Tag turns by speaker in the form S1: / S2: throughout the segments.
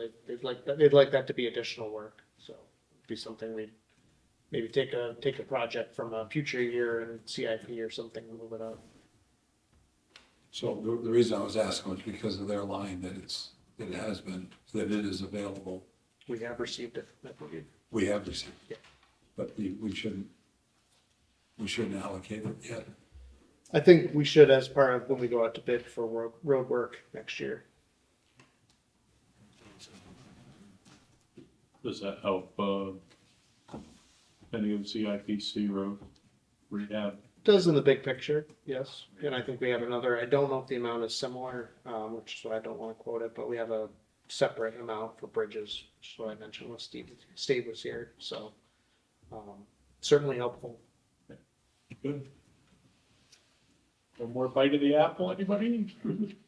S1: They'd, they'd like, that- they'd like that to be additional work, so it'd be something we'd maybe take a, take a project from a future year and CIP or something, and move it up.
S2: So the, the reason I was asking was because of their line that it's, that it has been, that it is available.
S1: We have received it. but we-
S2: We have received
S1: Yeah.
S2: it. But we, we shouldn't, we shouldn't allocate it yet.
S1: I think we should as part of when we go out to bid for road, road work next year.
S3: Does that help, uh, any of CIPC road rehab?
S1: Does in the big picture, yes. And I think we have another, I don't know if the amount is similar, um, which is why I don't wanna quote it, but we have a separate amount for bridges, which is what I mentioned when Steve, Steve was here, so. Um, certainly helpful.
S3: Good. One more bite of the apple, anybody?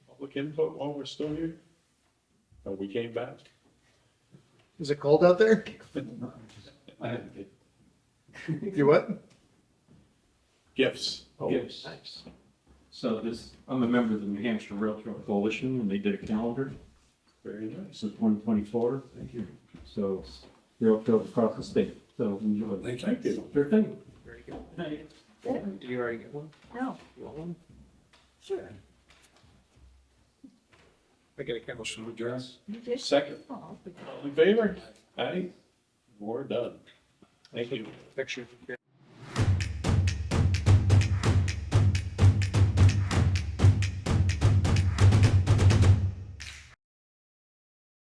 S3: Public input while we're still here? Oh, we came back?
S1: Is it cold out there? You what?
S3: Gifts.
S4: Yes.
S1: Nice.
S4: So this, I'm a member of the New Hampshire Railroad Coalition, and they did a calendar,
S3: Very nice.
S4: this is twenty twenty-four. Thank you. So they're up to across the state, so enjoy.
S2: Thank you.
S3: Thank you.
S4: Sure thing.
S1: Very good. Did you already get one?
S5: No.
S1: You want one?
S5: Sure.
S1: I get a camera.
S2: Motion to adjourn?
S5: You just.
S3: Second,
S5: Oh, okay.
S3: all in favor? Aye. We're done. Thank you.
S1: Picture.